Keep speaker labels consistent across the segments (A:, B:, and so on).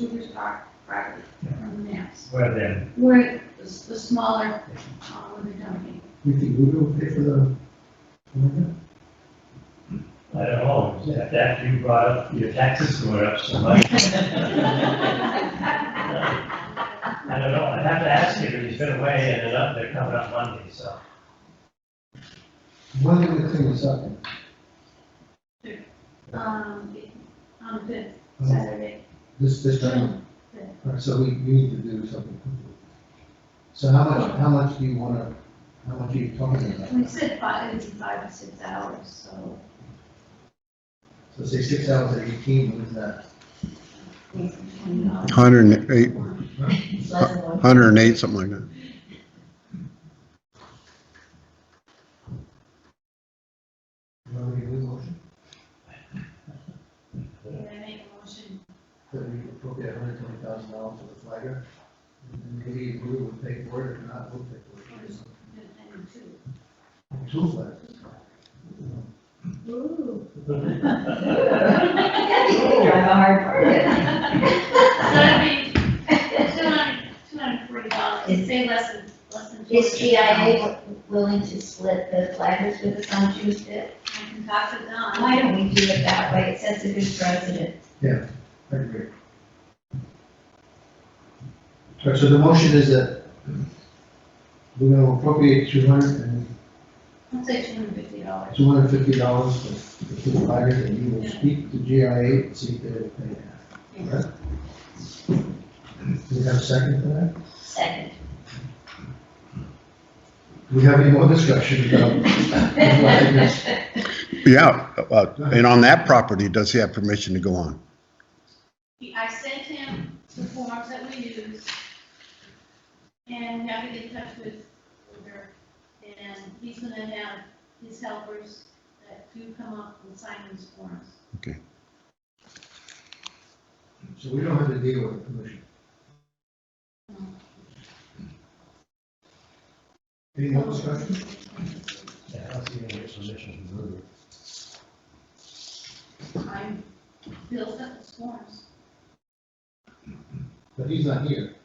A: Cooper's Park property on the maps,
B: Where then?
A: where the, the smaller, uh, where they're dumping.
C: You think Google will pay for the,
B: I don't know, that, that you brought up, your taxes going up so much. I don't know, I'd have to ask you, but he's been away and they're up, they're coming up Monday, so.
C: when do we clean this up?
A: Um, on the fifth, Saturday,
C: This, this time? All right, so we, we need to do something. quickly. So how much, how much do you wanna, how much are you talking about?
A: we said five, it's five to six hours, so.
C: So say six hours at eighteen, what is that?
A: it's $20.
D: Hundred and eight, hundred and eight, something like that.
C: You want me to do a motion?
A: Can I make a motion?
C: That we appropriate hundred twenty thousand dollars for the flagger? And maybe Google will pay for it, if not, we'll pay for it.
A: And two.
C: Two flags.
A: Ooh.
E: Drive a hard bargain.
A: That'd be two hundred, two hundred forty dollars, say less than, less than.
E: Is
A: 200.
E: GIA willing to split the flaggers with us on Tuesday?
A: I can pass it down.
E: Why don't we do it that way? It sets a good precedent.
C: I agree. All right, so the motion is that we're gonna appropriate two hundred and
A: I'd say two hundred fifty dollars.
C: two hundred fifty dollars for the two flaggers, and you will speak to GIA and see if they will pay that. All right? Do we have a second for that?
E: Second.
C: Do we have any more discussion about? flaggers?
D: Yeah, uh, and on that property, does he have permission to go on?
A: He- I sent him the forms that we use, and now we get in touch with her, and he's gonna have his helpers that do come up and sign these forms.
C: So we don't have to deal with the commission. Any more discussion?
B: Yeah, I don't see any permission to move.
A: I built up the forms.
C: But he's not here.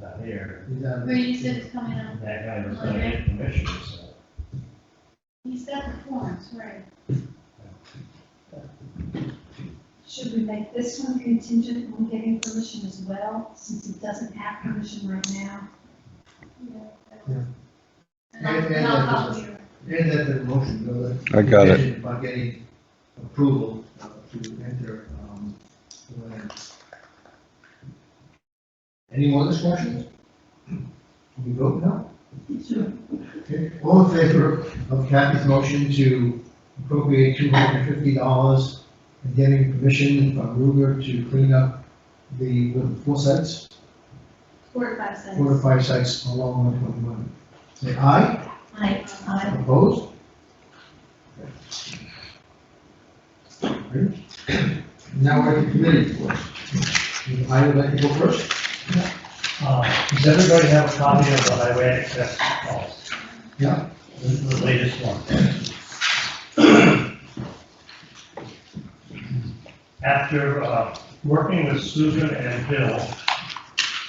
B: Not here,
C: He's out.
A: Brady said it's coming up,
B: that guy was gonna get permission, so.
A: he's got the forms, right?
F: Should we make this one contingent on getting permission as well, since it doesn't have permission right now?
A: Yeah. And I'll,
C: Yeah,
A: and
C: yeah,
A: I'll
C: yeah.
A: copy her.
C: And that the motion, though, that.
D: I got it.
C: contingent upon getting approval uh, to enter, um, the land. Any more discussion? Can we vote now? Okay, all in favor of Kathy's motion to appropriate two hundred and fifty dollars and getting permission from Ruger to clean up the, what, four sites?
A: Four to five cents.
C: Four to five sites along one twenty-one. Say aye?
E: I, I,
C: Opposed? Now we're at the committee report. Would I would like to go first?
B: Uh, does everybody have a copy of the highway access calls?
C: Yeah.
B: The the latest one. After, uh, working with Susan and Bill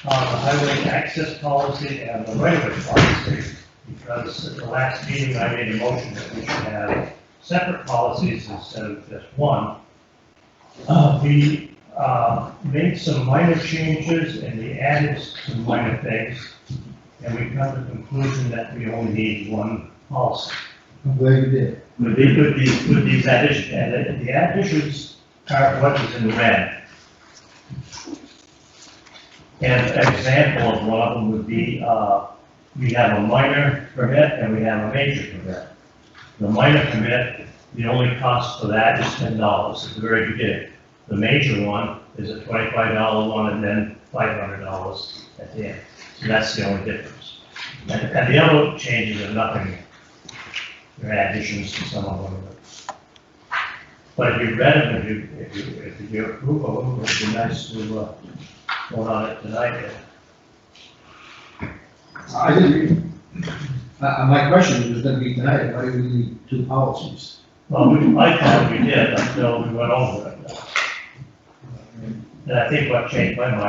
B: on the highway access policy and the right-of-way policy, because at the last meeting, I made a motion that we should have separate policies instead of just one. Uh, we uh, made some minor changes and we added some minor things. And we come to the conclusion that we only need one policy.
C: I'm glad you did.
B: With the- with these, with these additions, and uh, the additions are what is in the red. And an example of one of them would be, uh, we have a minor permit and we have a major permit. The minor permit, the only cost for that is ten dollars at the very beginning. The major one is a twenty-five dollar one and then five hundred dollars at the end. So that's the only difference. And, and the other changes are nothing, they're additions to some of them. But if you read them, if you, if you, if you approve of them, it'd be nice to, uh, go on it tonight.
C: I did read. Uh, uh, my question was gonna be tonight, why do we need two policies?
B: Well, we, I thought we did until we went over it.
C: And
B: And I think what changed my mind